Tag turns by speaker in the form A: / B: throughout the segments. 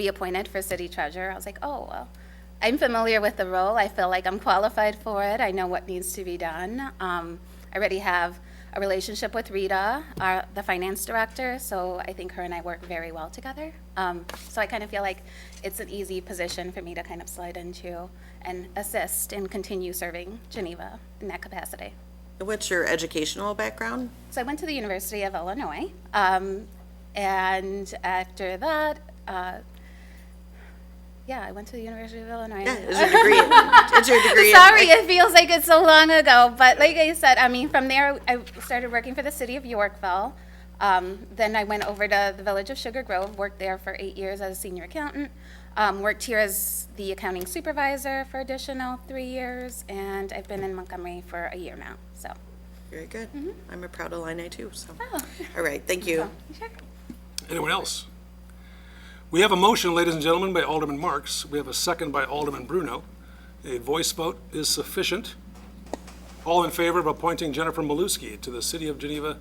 A: be appointed for city treasurer. I was like, oh, well, I'm familiar with the role. I feel like I'm qualified for it. I know what needs to be done. Um, I already have a relationship with Rita, our, the finance director, so I think her and I work very well together. Um, so I kind of feel like it's an easy position for me to kind of slide into and assist and continue serving Geneva in that capacity.
B: What's your educational background?
A: So I went to the University of Illinois, um, and after that, uh, yeah, I went to the University of Illinois.
B: Yeah, is your degree? is your degree? in-
A: Sorry, it feels like it's so long ago, but like I said, I mean, from there, I started working for the city of Yorkville. Um, then I went over to the village of Sugar Grove, worked there for eight years as a senior accountant. Um, worked here as the accounting supervisor for additional three years, and I've been in Montgomery for a year now. So,
B: Very good. I'm a proud Illini too. So, all right, thank you.
A: sure.
C: Anyone else? We have a motion, ladies and gentlemen, by Alderman Marks. We have a second by Alderman Bruno. A voice vote is sufficient. All in favor of appointing Jennifer Maluski to the City of Geneva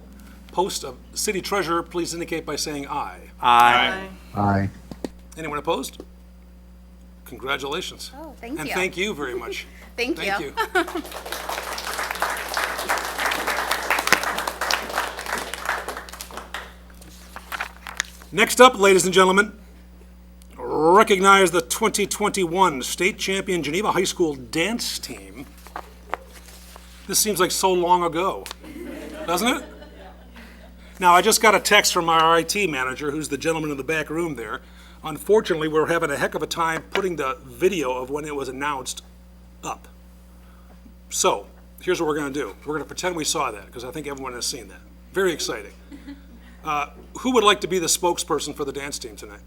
C: post of City Treasurer, please indicate by saying aye.
D: Aye.
C: Anyone opposed? Congratulations.
A: Oh, thank
C: And
A: you.
C: thank you very much.
A: Thank you.
C: Next up, ladies and gentlemen, recognize the 2021 State Champion Geneva High School Dance Team. This seems like so long ago, doesn't it? Now, I just got a text from our IT manager, who's the gentleman in the back room there. Unfortunately, we're having a heck of a time putting the video of when it was announced up. So, here's what we're going to do. We're going to pretend we saw that, because I think everyone has seen that. Very exciting. Uh, Who would like to be the spokesperson for the dance team tonight?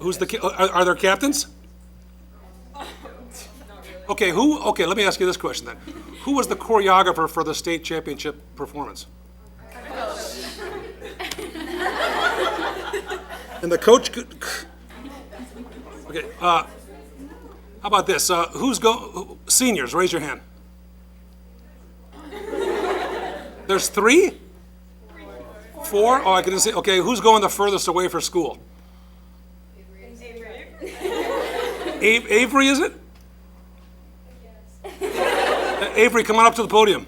C: Who's the, ca- are, are there captains? Okay, who, okay, let me ask you this question then. Who was the choreographer for the state championship performance? And the coach, could- okay, uh, how about this? Uh, who's go, seniors, raise your hand. There's three? Four? Oh, I couldn't see. Okay, who's going the furthest away for school? Avery. Avery, is it? Uh, Avery, come on up to the podium.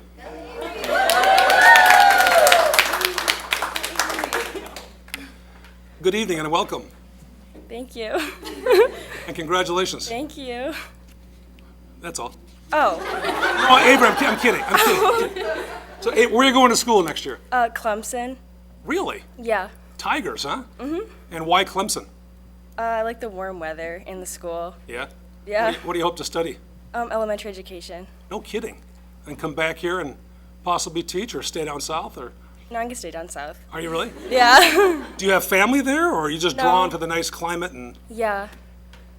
C: Good evening and welcome,
E: Thank you.
C: and congratulations.
E: Thank you.
C: That's all.
E: Oh,
C: Oh, Avery, I'm ki- I'm kidding, I'm kidding. So, A- where are you going to school next year?
E: uh, Clemson.
C: Really?
E: Yeah.
C: Tigers, huh? Mm-hmm. And why Clemson?
E: Uh, I like the warm weather in the school.
C: Yeah?
E: Yeah.
C: What do you hope to study?
E: Um, elementary education.
C: No kidding. And come back here and possibly teach or stay down south or,
E: No, I'm gonna stay down south.
C: are you really?
E: Yeah.
C: Do you have family there or are you just
E: No.
C: drawn to the nice climate and,
E: yeah.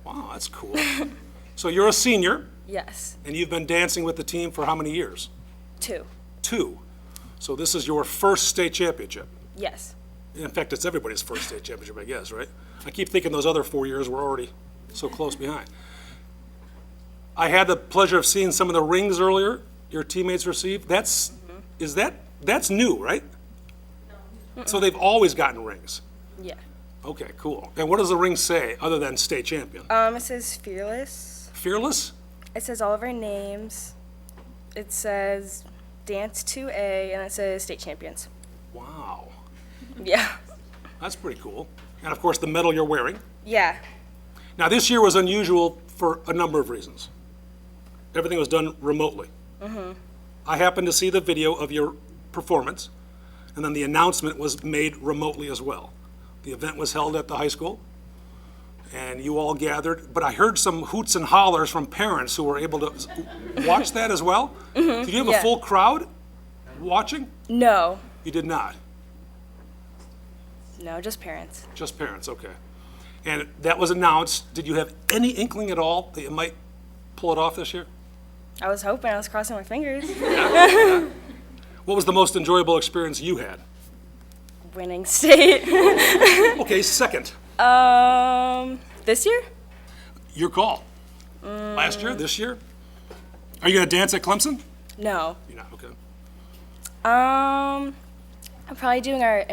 C: wow, that's cool. So you're a senior
E: Yes.
C: and you've been dancing with the team for how many years?
E: Two.
C: Two. So this is your first state championship.
E: Yes.
C: In fact, it's everybody's first state championship, I guess, right? I keep thinking those other four years were already so close behind. I had the pleasure of seeing some of the rings earlier your teammates received. That's, is that, that's new, right? So they've always gotten rings.
E: Yeah.
C: Okay, cool. And what does the ring say other than state champion?
E: Um, it says fearless.
C: Fearless?
E: It says all of our names. It says dance 2A, and it says state champions.
C: Wow,
E: Yeah.
C: that's pretty cool. And of course, the medal you're wearing.
E: Yeah.
C: Now, this year was unusual for a number of reasons. Everything was done remotely. I happened to see the video of your performance, and then the announcement was made remotely as well. The event was held at the high school, and you all gathered, but I heard some hoots and hollers from parents who were able to s- watch that as well. Did you have a
E: yeah.
C: full crowd watching?
E: No.
C: You did not.
E: No, just parents.
C: Just parents, okay. And that was announced. Did you have any inkling at all that you might pull it off this year?
E: I was hoping. I was crossing my fingers.
C: What was the most enjoyable experience you had?
E: Winning state.
C: Okay, second,
E: um, this year?
C: your call. Last year, this year? Are you going to dance at Clemson?
E: No.
C: You're not, okay.
E: Um, I'm probably doing our